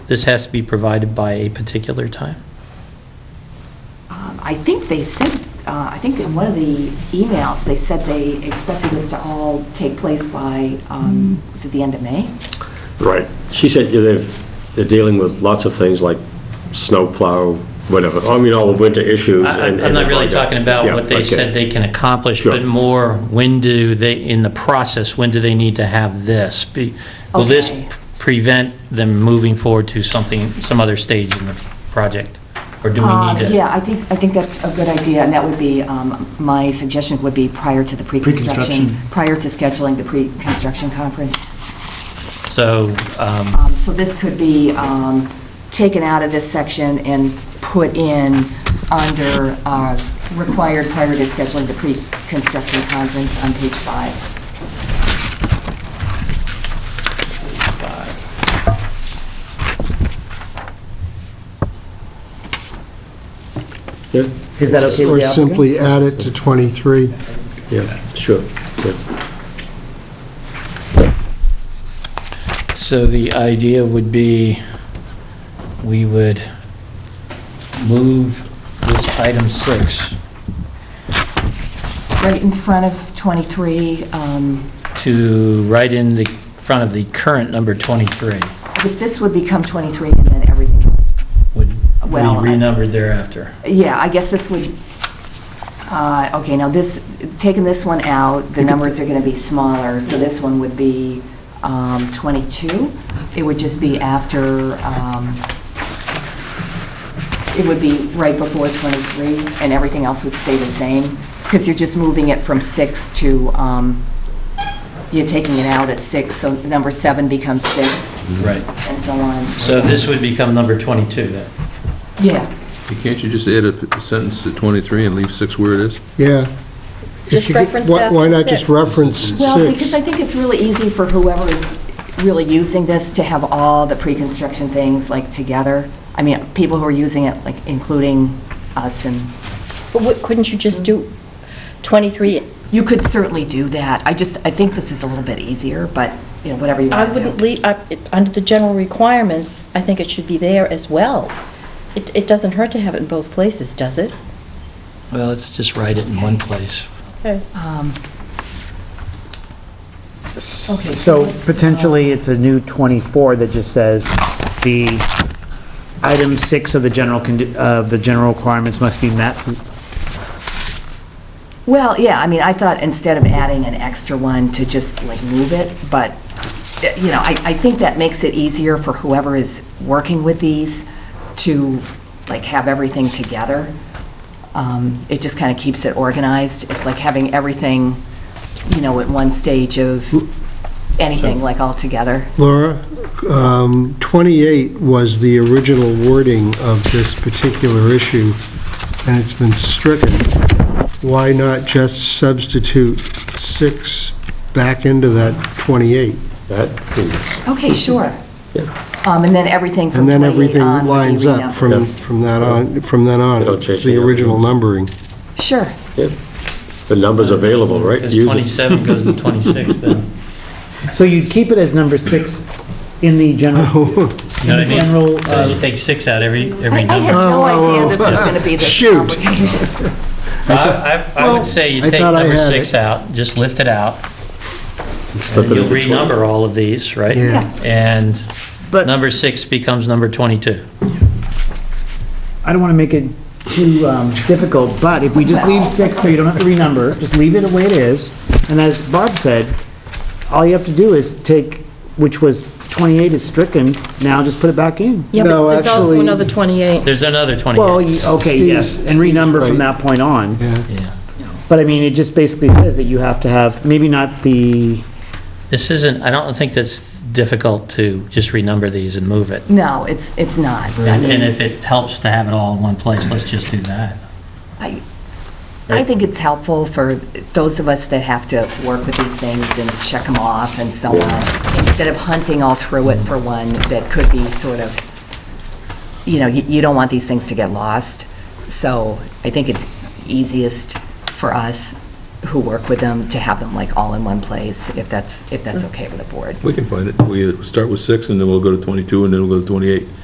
this has to be provided by a particular time? Um, I think they said, uh, I think in one of the emails, they said they expected this to all take place by, um, was it the end of May? Right. She said yeah, they're, they're dealing with lots of things like snowplow, whatever, I mean, all the winter issues. I- and- I- I'm not really and- talking about Yeah, what they okay. said they can accomplish, Sure. but more, when do they, in the process, when do they need to have this? Be- Will this Okay. prevent them moving forward to something, some other stage in the project? Or do we Uh, need to? Yeah, I think, I think that's a good idea, and that would be, um, my suggestion would be prior to the pre-construction, Pre-construction. prior to scheduling the pre-construction conference. So, um, Um, So this could be um, taken out of this section and put in under uh, required prior to scheduling the pre-construction conference on page five. Yeah, Is that okay with the Or applicant? simply add it to 23. yeah, sure. yeah. so the idea would be, we would move this item six Right in front of 23, um, to right in the front of the current number 23, because this would become 23 and then everything else. would be Well, I- renumbered thereafter. Yeah, I guess this would, uh, okay, now this, taking this one out, the numbers are going to be smaller, so this one would be um, 22. It would just be after, um, it would be right before 23, and everything else would stay the same, because you're just moving it from 6 to, um, you're taking it out at 6, so number 7 becomes 6, Right. and so on. So this would become number 22 then? Yeah, You Can't you just add a p- sentence to 23 and leave 6 where it is? Yeah. If Just you could- reference why- back Why to not just six. reference Well, because I six? think it's really easy for whoever is really using this to have all the pre-construction things like together. I mean, people who are using it, like including us and, But what- couldn't you just do 23? you could certainly do that. I just, I think this is a little bit easier, but, you know, whatever you I want to do. wouldn't leave, I- it- under the general requirements, I think it should be there as well. It it doesn't hurt to have it in both places, does it? Well, let's just write it in one place. Um, Okay, So let's, uh, potentially, it's a new 24 that just says, the item six of the general, condi- of the general requirements must be met. Well, yeah, I mean, I thought instead of adding an extra one to just like move it, but, eh, you know, I, I think that makes it easier for whoever is working with these to like have everything together. Um, It just kind of keeps it organized. It's like having everything, you know, at one stage of anything like all together. Laura, um, 28 was the original wording of this particular issue, and it's been stricken. Why not just substitute six back into that 28? That, Okay, sure. Yeah. Um, And then everything from um, And 28 then everything on would be lines up renumbered. from, Yeah. from that on, from then on. It'll It's change the the- original numbering. Sure. the number's available, right? Because Use it. 27 goes to 26 then. You So you'd keep it as number six in the general, know what I in the mean? general, So uh, you take six out every, I every I had number. no Oh, oh, idea this oh. was going to be this Shoot. complicated. I, I I Well, would say you I take thought I number had six out, just lift it out, and then Slip it you'll into 20. renumber all of these, right? Yeah. And But- number six becomes number 22. I don't want to make it too um, difficult, but if we just leave six, so you don't have to renumber, just leave it the way it is, and as Bob said, all you have to do is take, which was 28 is stricken, now just put it back in. Yeah, No, but there's also actually- another 28. There's another 28. Well, you- okay, yes, Steve's- and renumber from that point on. Yeah. Yeah. But I mean, it just basically says that you have to have, maybe not the, This isn't, I don't think that's difficult to just renumber these and move it. No, it's, it's not. I And mean, and if it helps to have it all in one place, let's just do that. I, I think it's helpful for those of us that have to work with these things and check them off and so on, instead of hunting all through it for one that could be sort of, you know, you, you don't want these things to get lost. So I think it's easiest for us who work with them to have them like all in one place, if that's, if that's okay with the board. We can find it. We uh, start with 6, and then we'll go to 22, and then we'll go to 28.